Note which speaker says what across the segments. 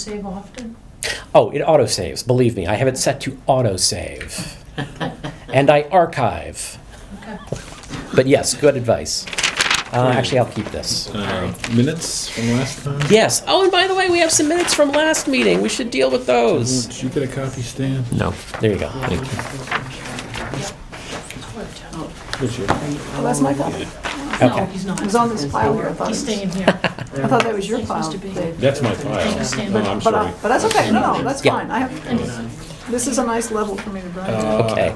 Speaker 1: save often?
Speaker 2: Oh, it autosaves. Believe me, I have it set to autosave. and I archive.
Speaker 1: Okay.
Speaker 2: But yes, good advice. Uh, actually, I'll keep this.
Speaker 3: Uh, minutes from last time?
Speaker 2: Yes. Oh, and by the way, we have some minutes from last meeting. We should deal with those.
Speaker 3: Did you get a copy, Stan?
Speaker 2: Mm-hmm. No. There you go.
Speaker 3: Did you?
Speaker 4: Oh, that's my copy.
Speaker 1: No,
Speaker 2: Okay.
Speaker 1: he's not.
Speaker 4: It was on this pile here, I thought.
Speaker 1: He's staying
Speaker 4: it
Speaker 1: here.
Speaker 4: was- I thought Oh, that was your
Speaker 1: It's supposed
Speaker 4: pile,
Speaker 1: to be.
Speaker 4: Dave.
Speaker 3: That's my file.
Speaker 1: Stan.
Speaker 3: No, I'm
Speaker 4: But,
Speaker 3: sorry.
Speaker 4: I- but that's okay, no, no, that's
Speaker 2: Yeah.
Speaker 4: fine, I have, this is a nice level for me to grind to.
Speaker 3: Uh,
Speaker 2: Okay.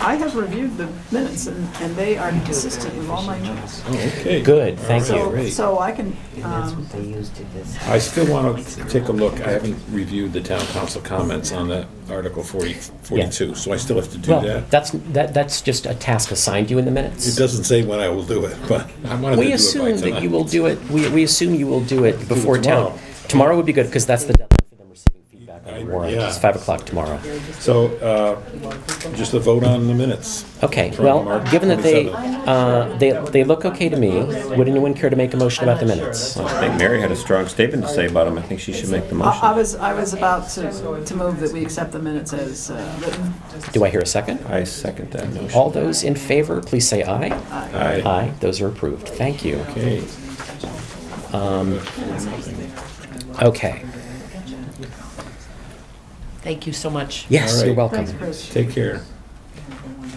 Speaker 4: I have reviewed the minutes, and, and they are consistent with all my notes.
Speaker 3: Oh, okay.
Speaker 2: Good. Thank you.
Speaker 4: So,
Speaker 3: Great.
Speaker 4: so I can,
Speaker 5: And that's
Speaker 4: um,
Speaker 5: what they used to this.
Speaker 3: I still want to take a look. I haven't reviewed the town council comments on the Article 40 42, so I still have to do
Speaker 2: Well,
Speaker 3: that.
Speaker 2: that's that. That's just a task assigned you in the
Speaker 3: It
Speaker 2: minutes.
Speaker 3: doesn't say when I will do it, but I wanted to do it by tonight.
Speaker 2: We assume that you will do it. We, we assume you will do it before town.
Speaker 3: tomorrow.
Speaker 2: Tomorrow would be good because that's the deadline for them receiving feedback on the
Speaker 3: I-
Speaker 2: warrant.
Speaker 3: yeah.
Speaker 2: It's five o'clock tomorrow.
Speaker 3: So, uh, just a vote on the minutes.
Speaker 2: Okay,
Speaker 3: From
Speaker 2: well,
Speaker 3: March
Speaker 2: given that they,
Speaker 3: 27th.
Speaker 2: uh, they, they look okay to me, would anyone care to make a motion about the minutes?
Speaker 6: I think Mary had a strong statement to say about him. I think she should make
Speaker 2: Uh,
Speaker 6: the
Speaker 4: I, I
Speaker 6: motion.
Speaker 4: was, I was about to, to move that we accept the minutes as uh, written.
Speaker 2: Do I hear a second?
Speaker 6: I second that motion.
Speaker 2: All those in favor, please say aye.
Speaker 3: Aye.
Speaker 2: Aye, those are approved. Thank you. Um,
Speaker 3: Okay.
Speaker 2: Okay,
Speaker 5: Thank you so much.
Speaker 2: yes,
Speaker 3: All
Speaker 2: you're
Speaker 3: right.
Speaker 2: welcome.
Speaker 3: Take care.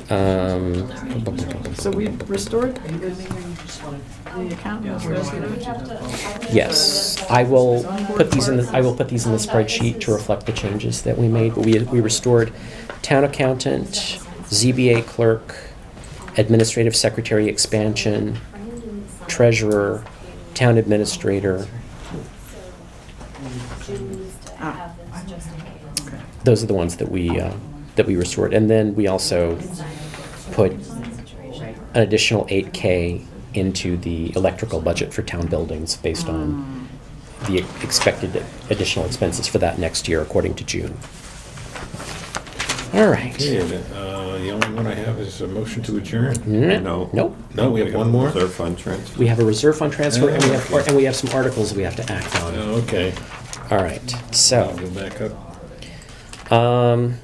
Speaker 2: Um,
Speaker 4: So we restored the account.
Speaker 2: Yes, I will put these in, the I will put these in the spreadsheet to reflect the changes that we made. But we, we restored town accountant, ZBA clerk, administrative secretary expansion, treasurer, town administrator.
Speaker 4: Ah,
Speaker 2: Those are the ones that we, uh, that we restored. And then we also put an additional 8K into the electrical budget for town buildings based
Speaker 4: Hmm.
Speaker 2: on the expected additional expenses for that next year, according to June. All
Speaker 3: Okay,
Speaker 2: right.
Speaker 3: uh, the only one I have is a motion to adjourn.
Speaker 6: No.
Speaker 2: Nope.
Speaker 3: No, we have one more?
Speaker 6: Reserve fund transfer.
Speaker 2: We have a reserve fund transfer, and we have, and we have some articles we have to act on.
Speaker 3: Oh, Okay.
Speaker 2: All right,
Speaker 3: I'll
Speaker 2: so,
Speaker 3: go back up.
Speaker 2: um,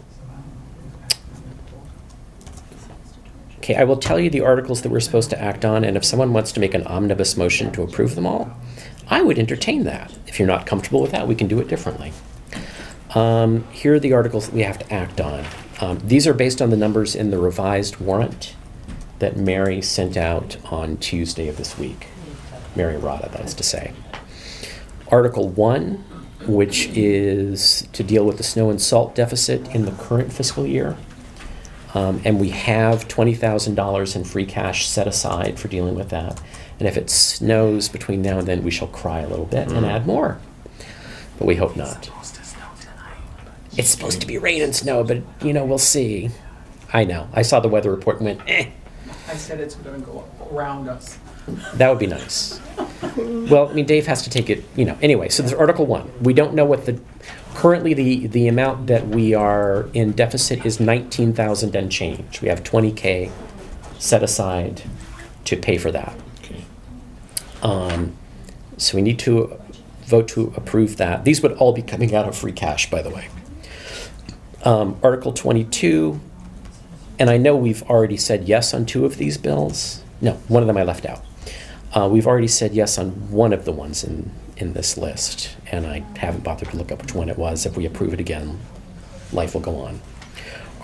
Speaker 2: okay, I will tell you the articles that we're supposed to act on, and if someone wants to make an omnibus motion to approve them all, I would entertain that. If you're not comfortable with that, we can do it differently. Um, here are the articles that we have to act on. Um, these are based on the numbers in the revised warrant that Mary sent out on Tuesday of this week. Mary Rada, that is to say. Article 1, which is to deal with the snow and salt deficit in the current fiscal year. Um, and we have $20,000 in free cash set aside for dealing with that. And if it snows between now and then, we shall cry a little bit and add more. But we hope not. It's supposed to be rain and snow, but you know, we'll see. I know. I saw the weather report and went, eh,
Speaker 7: I said it's gonna go around us.
Speaker 2: that would be nice. Well, I mean, Dave has to take it, you know, anyway, so there's Article One. We don't know what the, currently the, the amount that we are in deficit is nineteen thousand and change. We have twenty K set aside to pay for that.
Speaker 3: Okay.
Speaker 2: Um, so we need to vote to approve that. These would all be coming out of free cash, by the way. Um, Article 22, and I know we've already said yes on two of these bills. No, one of them I left out. Uh, we've already said yes on one of the ones in, in this list, and I haven't bothered to look up which one it was. If we approve it again, life will go on.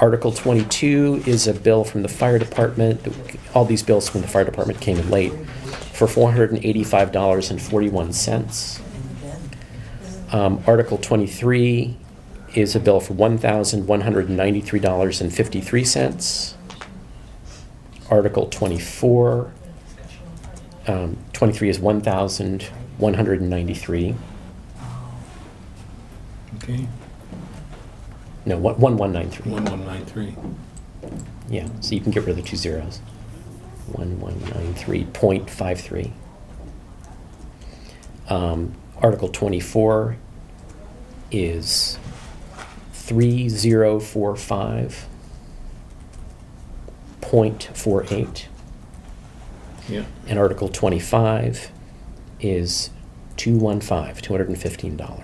Speaker 2: Article 22 is a bill from the fire department. All these bills from the fire department came in late for $485.41. Um, Article 23 is a bill for $1,193.53. Article 24, um, 23 is 1,193.
Speaker 3: Okay.
Speaker 2: No, one- 1193.
Speaker 3: 1193.
Speaker 2: Yeah, so you can get rid of the two zeros. 1193.53. Um, Article 24 is 3045.48.
Speaker 3: Yeah.
Speaker 2: And Article 25 is 215, $215.